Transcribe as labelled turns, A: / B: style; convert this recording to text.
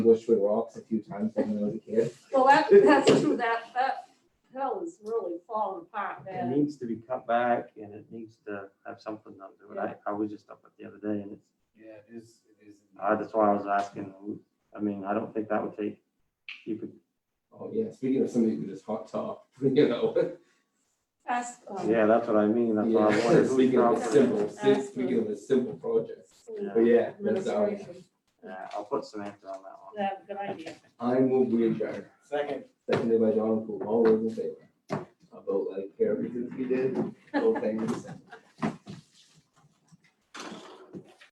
A: Bushwood Rocks a few times when I was a kid.
B: Well, that, that's true, that, that hill is really falling apart
C: It
B: there.
C: needs to be cut back and it needs to have something done to it. I, I was just up it the other day and it's,
D: Yeah, it is, it is.
C: uh, that's why I was asking. I mean, I don't think that would take, you could,
A: Oh, yeah, speaking of somebody who just hot top, you know.
B: That's,
D: Oh.
B: um,
C: yeah, that's what I mean. That's why I
A: Yeah,
C: wanted.
A: Speaking of a
B: Yeah.
A: simple, si-
B: That's
A: speaking of a simple project.
B: school
A: But yeah, that's our,
B: administration,
C: Yeah, I'll put Samantha on that one.
B: that, good idea.
A: I move we adjourn,
D: Second.
A: seconded by John Poole, all those in favor. About like Carol Kaczynski did, all things.